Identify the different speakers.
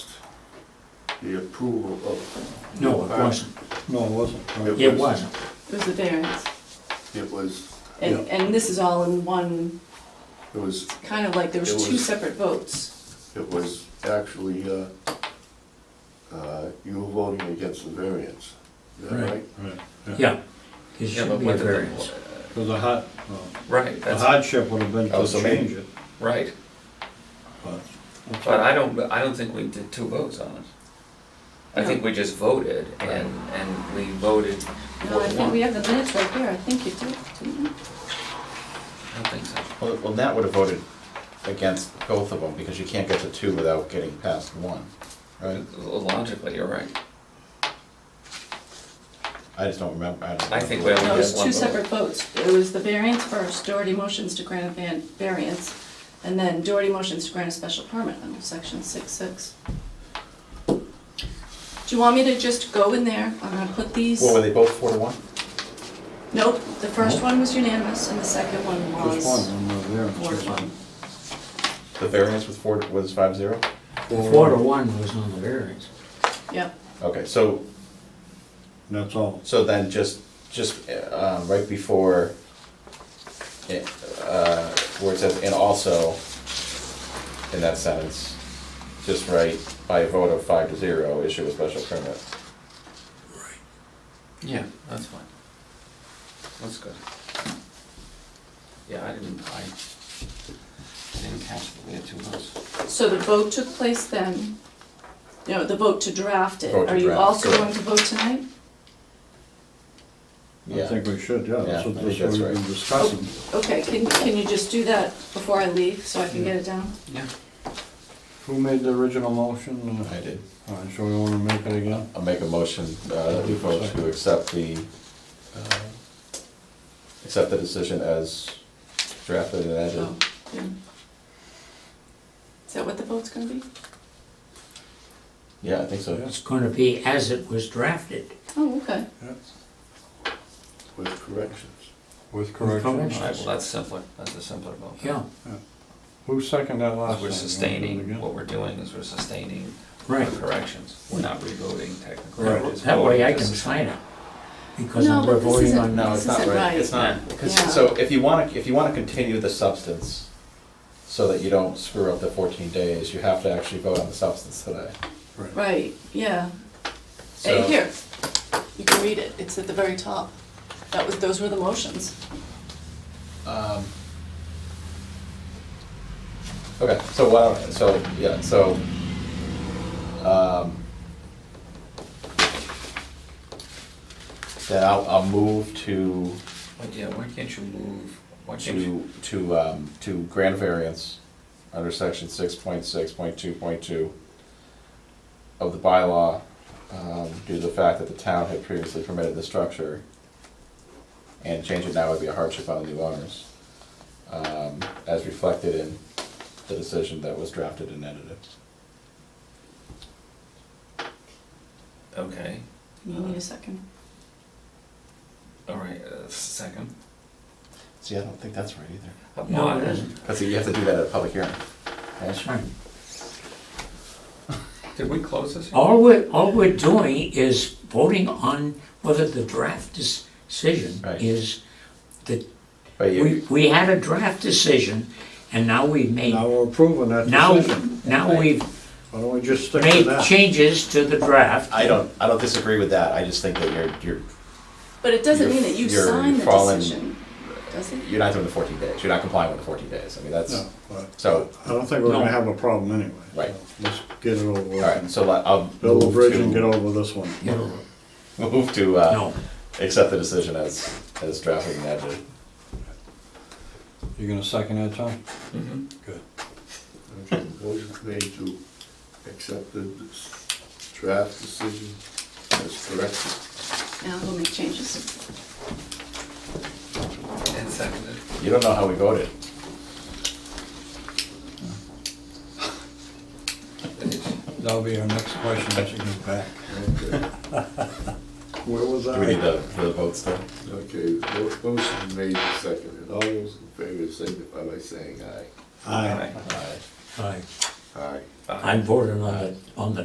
Speaker 1: the approval of.
Speaker 2: No, it
Speaker 3: uh,
Speaker 2: wasn't.
Speaker 3: No, it wasn't.
Speaker 1: It
Speaker 2: It
Speaker 1: was-
Speaker 2: wasn't.
Speaker 4: It was the variance.
Speaker 1: It was,
Speaker 4: And, and this is all in one,
Speaker 1: it was,
Speaker 4: kind of like there was
Speaker 1: It
Speaker 4: two
Speaker 1: was-
Speaker 4: separate votes.
Speaker 1: it was actually, uh, uh, you were voting against the variance, is that
Speaker 2: Right.
Speaker 1: right?
Speaker 3: Right,
Speaker 2: Yeah, it
Speaker 5: Yeah,
Speaker 2: should
Speaker 5: but
Speaker 2: be a
Speaker 5: what did the-
Speaker 2: variance.
Speaker 3: So the hot, well,
Speaker 5: Right,
Speaker 3: the
Speaker 5: that's,
Speaker 3: hardship would have been
Speaker 5: Oh,
Speaker 3: to
Speaker 5: so
Speaker 3: change it,
Speaker 5: right,
Speaker 3: but.
Speaker 5: but I don't, I don't think we did two votes on it. I think we just voted and, and we voted
Speaker 4: No, I
Speaker 5: for
Speaker 4: think
Speaker 5: one.
Speaker 4: we
Speaker 5: I
Speaker 4: have the minutes right here, I think you did, didn't you?
Speaker 5: don't think so.
Speaker 6: Well, well, Nat would have voted against both of them, because you can't get to two without getting past one, right?
Speaker 5: Logically, you're right.
Speaker 6: I just don't remember, I don't.
Speaker 5: I think we only
Speaker 4: No, it
Speaker 5: had
Speaker 4: was two
Speaker 5: one
Speaker 4: separate
Speaker 5: vote.
Speaker 4: votes. It was the variance first, Doherty motions to grant a van, variance, and then Doherty motions to grant a special permit under section six six. Do you want me to just go in there? I'm gonna put these,
Speaker 6: Well, were they both four to one?
Speaker 4: nope, the first one was unanimous and the second one
Speaker 3: Just
Speaker 4: was
Speaker 3: one, when they're there.
Speaker 4: four to one.
Speaker 6: The variance was four, was five zero?
Speaker 2: Four to one was on the variance.
Speaker 4: Yep,
Speaker 6: Okay, so,
Speaker 3: And that's all.
Speaker 6: so then just, just, uh, right before, it, uh, where it says, and also, in that sentence, just write, by a vote of five to zero, issue a special permit.
Speaker 5: Yeah, that's fine. That's good. Yeah, I didn't, I didn't catch that we had two votes.
Speaker 4: so the vote took place then, you know, the vote to draft it.
Speaker 6: Vote to
Speaker 4: Are you
Speaker 6: draft,
Speaker 4: also
Speaker 6: correct.
Speaker 4: going to vote tonight?
Speaker 3: I think we should, yeah, that's
Speaker 6: Yeah,
Speaker 3: what
Speaker 6: I
Speaker 3: that's what
Speaker 6: think that's
Speaker 3: we've been
Speaker 6: right.
Speaker 3: discussing.
Speaker 4: Okay, can, can you just do that before I leave, so I can get it down?
Speaker 5: Yeah.
Speaker 3: Who made the original motion? Uh,
Speaker 6: I did.
Speaker 3: All right, so we wanna make it again?
Speaker 6: I'll make a motion uh, that we vote to accept the, uh, accept the decision as drafted and edited.
Speaker 4: Oh, yeah. Is that what the vote's gonna be?
Speaker 6: Yeah, I think so.
Speaker 2: It's gonna be as it was drafted.
Speaker 4: Oh, okay.
Speaker 1: With corrections.
Speaker 3: With
Speaker 2: corrections.
Speaker 5: All right, well, that's simpler. That's a simpler vote.
Speaker 2: Yeah,
Speaker 3: Who seconded that last
Speaker 5: Because
Speaker 3: time? You
Speaker 5: We're
Speaker 3: wanna do it
Speaker 5: sustaining,
Speaker 3: again?
Speaker 5: what we're doing is we're sustaining the
Speaker 2: right.
Speaker 5: corrections. We're not revoting technically.
Speaker 3: Right.
Speaker 5: We're just
Speaker 2: That way I
Speaker 5: voting
Speaker 2: can
Speaker 5: this.
Speaker 2: sign it. Because
Speaker 4: No,
Speaker 2: I'm we're
Speaker 4: but this
Speaker 2: voting
Speaker 4: isn't-
Speaker 2: on,
Speaker 6: No, it's not
Speaker 4: This isn't
Speaker 6: right, it's
Speaker 5: right.
Speaker 6: not, because,
Speaker 4: Yeah.
Speaker 6: so if you wanna, if you wanna continue the substance, so that you don't screw up the fourteen days, you have to actually vote on the substance today.
Speaker 4: Right, yeah. Hey,
Speaker 6: So-
Speaker 4: here, you can read it, it's at the very top. That was, those were the motions.
Speaker 6: Um, Okay, so why don't, so, yeah, so, um, then I'll, I'll move to,
Speaker 5: But yeah, why can't you move, why can't you,
Speaker 6: to, to, um, to grant variance under section six point six point two point two of the bylaw, um, due to the fact that the town had previously permitted the structure. And change it now would be a hardship on the new owners, um, as reflected in the decision that was drafted and edited.
Speaker 5: okay,
Speaker 4: You need a second.
Speaker 5: all right, uh, second.
Speaker 6: See, I don't think that's right either.
Speaker 5: Up
Speaker 2: no,
Speaker 5: on.
Speaker 2: it isn't.
Speaker 6: Cause you have to do that at a public hearing.
Speaker 2: That's right.
Speaker 5: Did we close this?
Speaker 2: All we're, all we're doing is voting on whether the draft decision
Speaker 6: Right.
Speaker 2: is, that,
Speaker 6: But
Speaker 2: we,
Speaker 6: you,
Speaker 2: we had a draft decision, and now we've made,
Speaker 3: Now we're approving that
Speaker 2: now,
Speaker 3: decision.
Speaker 2: now we've
Speaker 3: Why don't we just stick to
Speaker 2: made
Speaker 3: that?
Speaker 2: changes to the draft.
Speaker 6: I don't, I don't disagree with that, I just think that you're, you're
Speaker 4: But it doesn't
Speaker 6: You're-
Speaker 4: mean that you
Speaker 6: you're
Speaker 4: sign the
Speaker 6: following-
Speaker 4: decision, does it?
Speaker 6: you're not doing the fourteen days, you're not complying with the fourteen days, I mean, that's,
Speaker 3: No, but
Speaker 6: so,
Speaker 3: I don't think we're
Speaker 2: No.
Speaker 3: gonna have a problem anyway.
Speaker 6: Right.
Speaker 3: so Let's get it over with.
Speaker 6: alright, so let- I'll.
Speaker 3: Build a
Speaker 6: move
Speaker 3: bridge
Speaker 6: to-
Speaker 3: and get over this one.
Speaker 2: You know,
Speaker 6: Move to, uh,
Speaker 2: No,
Speaker 6: accept the decision as, as drafted and edited.
Speaker 3: You gonna second that, Tom?
Speaker 5: Mm-hmm.
Speaker 3: Good.
Speaker 1: Okay, motion made to accept the draft decision as corrected.
Speaker 4: Now we'll make changes.
Speaker 5: And seconded.
Speaker 6: You don't know how we voted.
Speaker 3: That'll be our next question as you get back.
Speaker 1: Okay,
Speaker 3: Where was I?
Speaker 6: Do we need the, the vote still?
Speaker 1: Okay. mo- motion made and seconded. All those in favor signify by saying aye.
Speaker 3: Aye.
Speaker 6: Aye.
Speaker 2: I,
Speaker 1: Aye.
Speaker 2: I'm voting on the, on the